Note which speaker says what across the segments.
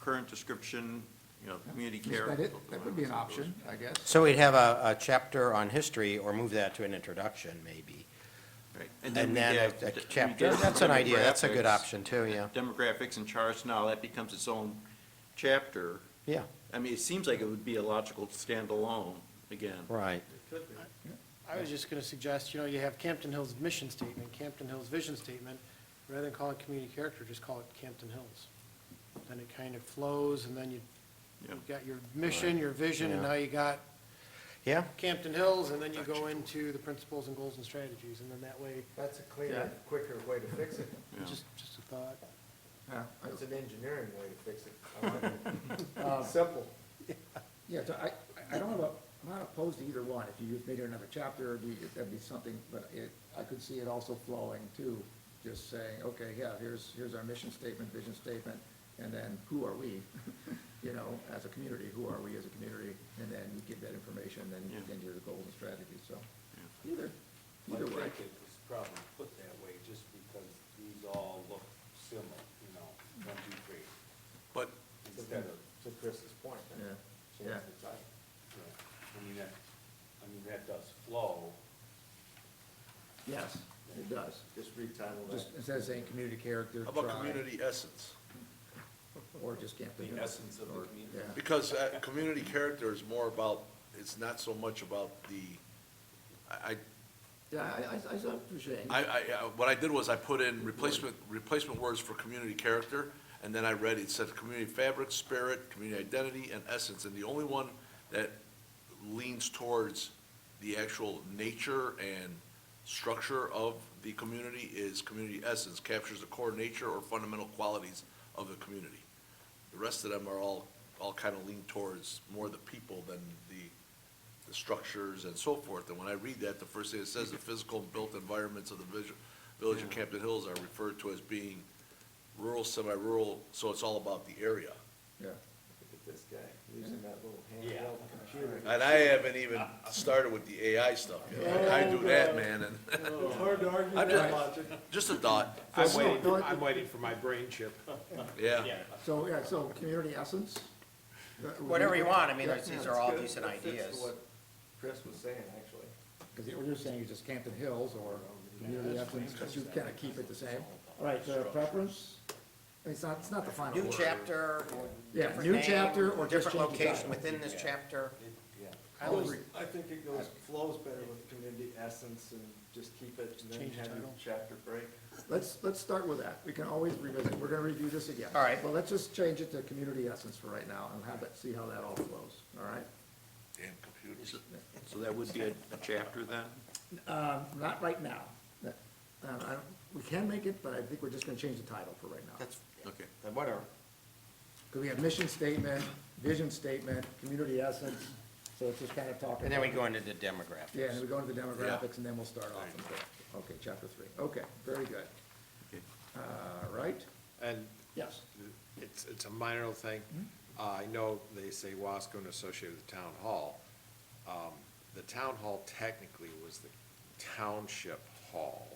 Speaker 1: current description, you know, community
Speaker 2: Is
Speaker 1: care.
Speaker 2: that it? That would be an option, I guess.
Speaker 3: So we'd have a, a chapter on history or move that to an introduction maybe.
Speaker 1: Right. then
Speaker 3: And
Speaker 1: we
Speaker 3: then
Speaker 1: have
Speaker 3: a, a
Speaker 1: de- we
Speaker 3: chapter,
Speaker 1: have
Speaker 3: that's an idea, that's a good
Speaker 1: demographics,
Speaker 3: option too, yeah,
Speaker 1: Demographics and charts, now that becomes its own chapter.
Speaker 3: yeah,
Speaker 1: I mean, it seems like it would be a logical standalone, again.
Speaker 3: right.
Speaker 4: I was just going to suggest, you know, you have Campton Hills mission statement, Campton Hills vision statement, rather than call it community character, just call it Campton Hills. Then it kind of flows, and then you,
Speaker 1: Yeah.
Speaker 4: you've got your mission, your vision, and
Speaker 3: Yeah.
Speaker 4: now you got
Speaker 3: Yeah,
Speaker 4: Campton Hills, and then you go into the principles and goals and strategies, and then that way,
Speaker 5: That's a cleaner, quicker way to fix it.
Speaker 1: Yeah.
Speaker 4: just, just a thought.
Speaker 2: Yeah, I-
Speaker 5: It's an engineering way to fix it. I like it. Simple.
Speaker 2: Yeah, so I, I don't have a, I'm not opposed to either one. If you just made it another chapter, it'd be, that'd be something, but it, I could see it also flowing too. Just saying, okay, yeah, here's, here's our mission statement, vision statement, and then who are we? You know, as a community, who are we as a community? And then you give that information, then,
Speaker 1: Yeah.
Speaker 2: then your goals and strategies, so.
Speaker 6: I
Speaker 2: Either, either
Speaker 6: think it
Speaker 2: way.
Speaker 6: was probably put that way just because these all look similar, you know, one, two, three,
Speaker 1: But
Speaker 6: instead of
Speaker 5: To Chris's point.
Speaker 2: Yeah,
Speaker 6: change
Speaker 2: yeah.
Speaker 6: the type. you know. I mean, that, I mean, that does flow.
Speaker 2: Yes, it does.
Speaker 5: Just retitle
Speaker 2: Just
Speaker 5: that.
Speaker 2: instead of saying community character,
Speaker 7: How about
Speaker 2: try,
Speaker 7: community essence?
Speaker 2: or just Camp
Speaker 6: The
Speaker 2: Hill,
Speaker 6: essence of the
Speaker 2: or-
Speaker 6: community.
Speaker 2: yeah.
Speaker 7: Because uh, community character is more about, it's not so much about the, I, I-
Speaker 2: Yeah, I, I, I saw what you're saying.
Speaker 7: I, I, uh, what I did was I put in replacement, replacement words for community character, and then I read, it said community fabric, spirit, community identity, and essence, and the only one that leans towards the actual nature and structure of the community is community essence, captures the core nature or fundamental qualities of the community. The rest of them are all, all kind of lean towards more the people than the, the structures and so forth. And when I read that, the first thing it says, the physical and built environments of the vis- village of Camden Hills are referred to as being rural, semi-rural, so it's all about the area.
Speaker 2: Yeah.
Speaker 5: Look at this guy, using that little handheld computer.
Speaker 7: And I haven't even started with the AI stuff yet. I do that, man, and
Speaker 5: Oh, It's hard to argue
Speaker 7: I'm
Speaker 5: that
Speaker 7: just-
Speaker 5: logic.
Speaker 7: just a thought,
Speaker 6: I'm
Speaker 2: So, no,
Speaker 6: waiting,
Speaker 2: it-
Speaker 6: I'm waiting for my brain chip.
Speaker 7: yeah.
Speaker 2: So, yeah, so community essence? that would
Speaker 3: Whatever
Speaker 2: be-
Speaker 3: you want, I mean,
Speaker 2: Yeah,
Speaker 3: these
Speaker 2: yeah,
Speaker 3: are
Speaker 2: it's
Speaker 3: all
Speaker 2: good.
Speaker 3: decent
Speaker 5: It fits
Speaker 3: ideas.
Speaker 5: what Chris was saying, actually.
Speaker 2: Because what you're saying is just Camden Hills or community essence, but you kind of keep it the same. All right, uh, preference? I mean, It's not, it's not the final
Speaker 3: New
Speaker 2: word.
Speaker 3: chapter, or
Speaker 2: Yeah,
Speaker 3: different
Speaker 2: new
Speaker 3: name,
Speaker 2: chapter or just
Speaker 3: Different
Speaker 2: change the
Speaker 3: location
Speaker 2: title.
Speaker 3: within this chapter.
Speaker 5: I was, I think it goes, flows better with community essence and just keep it and then
Speaker 4: Change the
Speaker 5: have your
Speaker 4: title.
Speaker 5: chapter break.
Speaker 2: Let's, let's start with that. We can always revisit. We're going to review this again.
Speaker 3: All right.
Speaker 2: Well, let's just change it to community essence for right now and have it, see how that all flows, all right?
Speaker 7: Damn computers.
Speaker 1: So that would be a, a chapter then?
Speaker 2: Um, not right now. That- um, I don't- we can make it, but I think we're just going to change the title for right now.
Speaker 3: That's,
Speaker 1: Okay.
Speaker 3: whatever.
Speaker 2: Because we have mission statement, vision statement, community essence, so it's just kind of talking.
Speaker 3: And then we
Speaker 2: about-
Speaker 3: go into the demographics.
Speaker 2: Yeah, and then we go into the demographics, and then we'll start off with, the- okay, chapter three. Okay, very good.
Speaker 1: Okay.
Speaker 2: All right,
Speaker 8: And
Speaker 2: yes.
Speaker 8: it's, it's a minor little thing. Uh, I know they say Wasco and associated with the town hall. Um, The town hall technically was the township hall.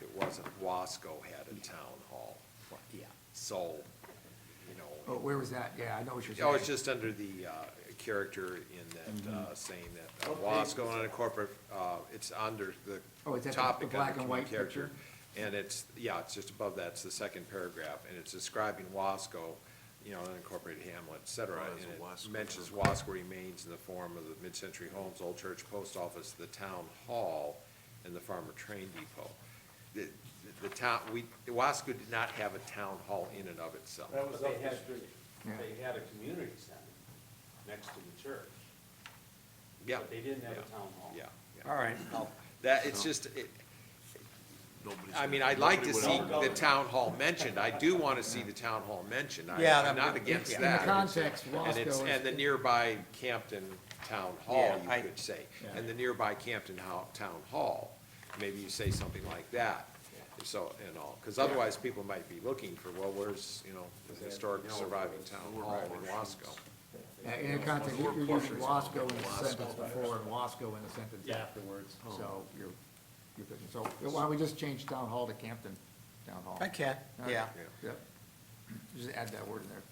Speaker 8: It wasn't Wasco had a town hall.
Speaker 3: Yeah.
Speaker 8: So, you
Speaker 2: Oh,
Speaker 8: know,
Speaker 2: where was that? Yeah, I know what you're saying.
Speaker 8: oh, it's just under the uh, character in that,
Speaker 2: Mm-hmm.
Speaker 8: uh, saying that uh, Wasco unincorporated, uh, it's under the
Speaker 2: Oh, it's at the- the
Speaker 8: topic
Speaker 2: black
Speaker 8: under
Speaker 2: and white
Speaker 8: community character.
Speaker 2: picture?
Speaker 8: And it's, yeah, it's just above that, it's the second paragraph, and it's describing Wasco, you know, unincorporated hamlet, et cetera.
Speaker 7: Oh,
Speaker 8: And
Speaker 7: that's a
Speaker 8: it
Speaker 7: Wasco
Speaker 8: mentions
Speaker 7: urban.
Speaker 8: Wasco remains in the form of the mid-century homes, old church, post office, the town hall, and the farmer train depot. The, the- the town, we, Wasco did not have a town hall in and of itself.
Speaker 6: That was
Speaker 5: But
Speaker 6: up
Speaker 5: they
Speaker 6: the
Speaker 5: had-
Speaker 6: street.
Speaker 2: Yeah.
Speaker 6: They had a community center next to the church.
Speaker 8: Yeah.
Speaker 6: But they didn't have a
Speaker 8: yeah,
Speaker 6: town hall.
Speaker 8: Yeah. yeah.
Speaker 3: All right.
Speaker 8: That, it's just, it,
Speaker 7: Nobody's-
Speaker 8: I mean, I'd like to
Speaker 7: nobody would
Speaker 8: see
Speaker 7: own it.
Speaker 8: the town hall mentioned. I do want to see the town hall mentioned. I-
Speaker 3: Yeah,
Speaker 8: I'm
Speaker 3: that-
Speaker 8: not against
Speaker 3: yeah.
Speaker 2: In the
Speaker 8: that.
Speaker 2: context,
Speaker 8: And it's,
Speaker 2: Wasco
Speaker 8: and the
Speaker 2: is,
Speaker 8: nearby Campton Town Hall,
Speaker 3: Yeah, I-
Speaker 8: you could say.
Speaker 2: Yeah.
Speaker 8: And the nearby Campton Ho- Town Hall, maybe you say something like that, so, and all. Because otherwise, people might be looking for, well, where's, you know, the historic surviving town hall in Wasco?
Speaker 2: yeah, in the context, you're you're using Wasco in the sentence before and Wasco in the sentence afterwards,
Speaker 8: Oh.
Speaker 2: so you're, you're good. So why don't we just change town hall to Campton Town Hall?
Speaker 3: I can, yeah.
Speaker 2: Yep. Just add that word in there.